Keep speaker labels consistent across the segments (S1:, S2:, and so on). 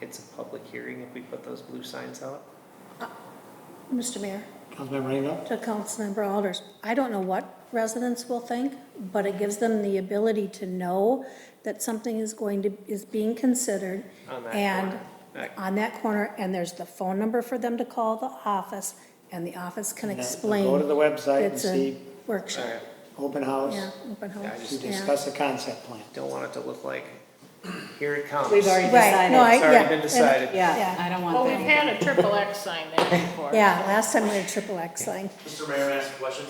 S1: it's a public hearing if we put those blue signs out?
S2: Mr. Mayor,
S3: Councilmember Rainville?
S2: to Councilmember Alders, I don't know what residents will think, but it gives them the ability to know that something is going to, is being considered.
S1: On that
S2: And
S1: corner.
S2: on that corner, and there's the phone number for them to call the office, and the office can explain.
S3: Go to the website and
S2: It's a
S3: see
S1: All
S2: workshop,
S1: right.
S3: open house
S2: yeah, open
S1: Yeah, I
S2: house,
S3: to
S1: just-
S2: yeah.
S3: discuss the concept plan.
S1: Don't want it to look like, here it comes.
S4: We've already-
S2: Right, no, I,
S1: It's
S2: yeah.
S1: already been
S2: and-
S1: decided.
S4: Yeah,
S2: Yeah.
S4: I don't
S5: Well,
S4: want
S5: we've
S4: that.
S5: had a triple X sign there before.
S2: Yeah, last time we had a triple X thing.
S6: Mr. Mayor, may I ask a question?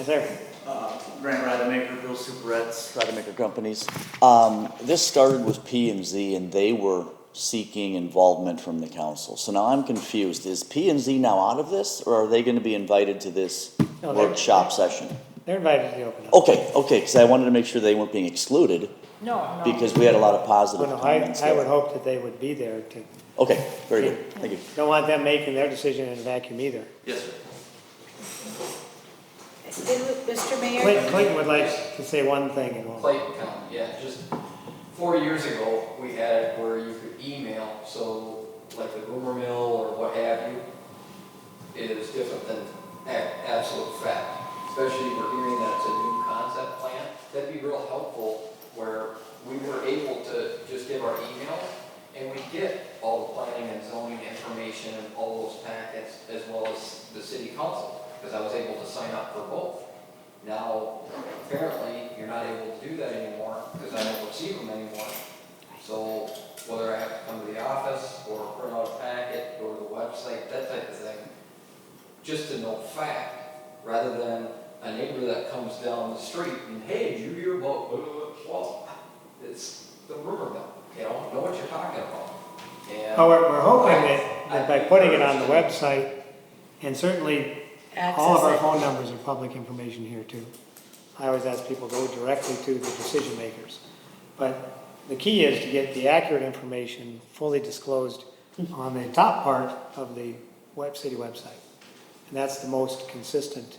S3: Is there,
S6: Uh, Grant Rademacher, Bill Superetz, Rademacher Companies.
S7: Um, this started with P and Z, and they were seeking involvement from the council. So now I'm confused. Is P and Z now out of this, or are they going to be invited to this
S3: No, they're-
S7: workshop session?
S3: they're invited to the open house.
S7: Okay, okay, because I wanted to make sure they weren't being excluded,
S5: No, no.
S7: because we had a lot of positive
S3: Well, no, I,
S7: comments
S3: I would
S7: there.
S3: hope that they would be there to,
S7: Okay, very good, thank you.
S3: don't want them making their decision in a vacuum either.
S6: Yes, sir.
S4: Mr. Mayor,
S3: Clinton, Clinton would like to say one thing and all.
S8: Clayton County, yeah, just four years ago, we had it where you could email, so like the rumor mill or what have you, is different than a- absolute fact, especially we're hearing that it's a new concept plan. That'd be real helpful where we were able to just give our email and we get all the planning and zoning information and all those packets as well as the city council, because I was able to sign up for both. Now, apparently, you're not able to do that anymore, because I don't receive them anymore. So whether I have to come to the office, or print out a packet, go to the website, that type of thing, just to know fact, rather than a neighbor that comes down the street and, hey, did you hear about, blah, blah, blah?" well, it's the rumor mill, you don't know what you're talking about. And-
S3: However, we're hoping that, that by putting it on the website, and certainly all of our
S4: access
S3: phone numbers are public information here too. I always ask people, go directly to the decision makers. But the key is to get the accurate information fully disclosed on the top part of the web, city website. And that's the most consistent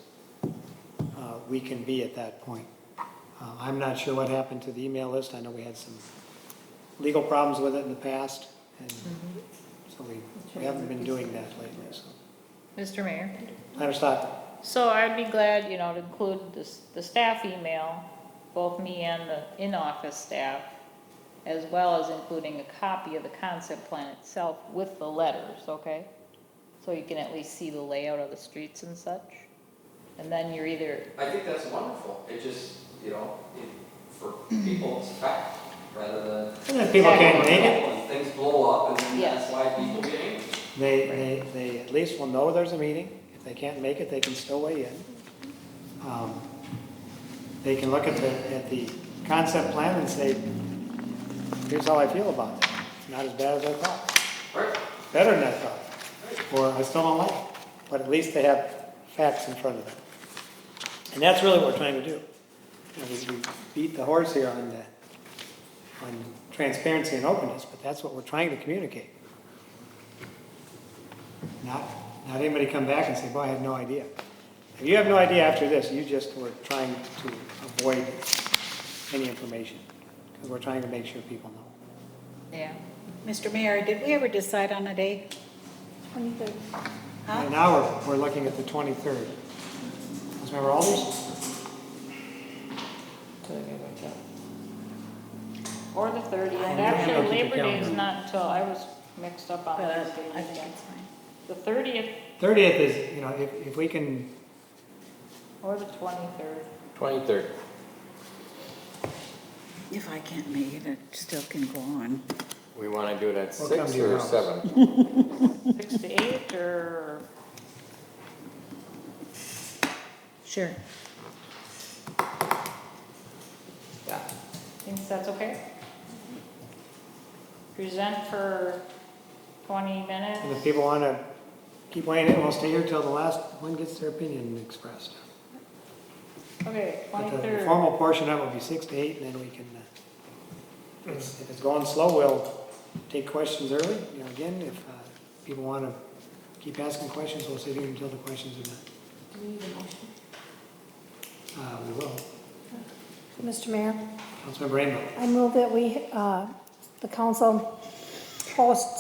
S3: uh, we can be at that point. Uh, I'm not sure what happened to the email list. I know we had some legal problems with it in the past, and so we, we haven't been doing that lately, so.
S5: Mr. Mayor,
S3: Madam Stockton?
S5: so I'd be glad, you know, to include the, s- the staff email, both me and the in-office staff, as well as including a copy of the concept plan itself with the letters, okay? So you can at least see the layout of the streets and such. And then you're either,
S8: I think that's wonderful, it just, you know, it- for
S3: Mm-hmm.
S8: people, it's a fact, rather than.
S3: And if people can't make it,
S8: When Things blow up, and then
S5: Yes.
S8: that's why people get angry.
S3: they, they, they at least will know there's a meeting. If they can't make it, they can still weigh in. Um, They can look at the, at the concept plan and say, here's how I feel about it. It's not as bad as I thought.
S8: Right.
S3: Better than I thought. Or I still don't like it. But at least they have facts in front of them. And that's really what we're trying to do. You know, we- we beat the horse here on the, on transparency and openness, but that's what we're trying to communicate. Not, not anybody come back and say, boy, I had no idea. If you have no idea after this, you just were trying to avoid any information, because we're trying to make sure people know.
S5: yeah,
S4: Mr. Mayor, did we ever decide on a day? Huh?
S3: And now we're, we're looking at the 23rd. Councilmember Alders?
S5: or the thirtieth.
S3: I'll
S5: Actually,
S3: keep the
S5: Labor Day is
S3: calendar.
S5: not until, I was mixed up on
S4: But
S5: Thursday
S4: I think
S5: weekend.
S4: it's fine.
S5: The thirtieth
S3: 30th is, you know, if, if we can,
S5: or the twenty-third.
S6: Twenty-third.
S4: If I can't make it, it still can go on.
S6: We wanna do it at
S3: We'll come
S6: six
S3: to your
S6: or
S3: house.
S6: seven?
S5: Six to eight, or,
S4: Sure.
S5: thinks that's okay? Present for twenty minutes?
S3: and if people want to keep weighing in, we'll stay here till the last one gets their opinion expressed.
S5: Okay,
S3: But the
S5: twenty-third,
S3: formal portion of it will be six to eight, and then we can, uh, if if it's going slow, we'll take questions early. You know, again, if uh, people want to keep asking questions, we'll sit here until the questions are done. Uh, We will.
S2: Mr. Mayor,
S3: Councilmember Rainville.
S2: I move that we, uh, the council hosts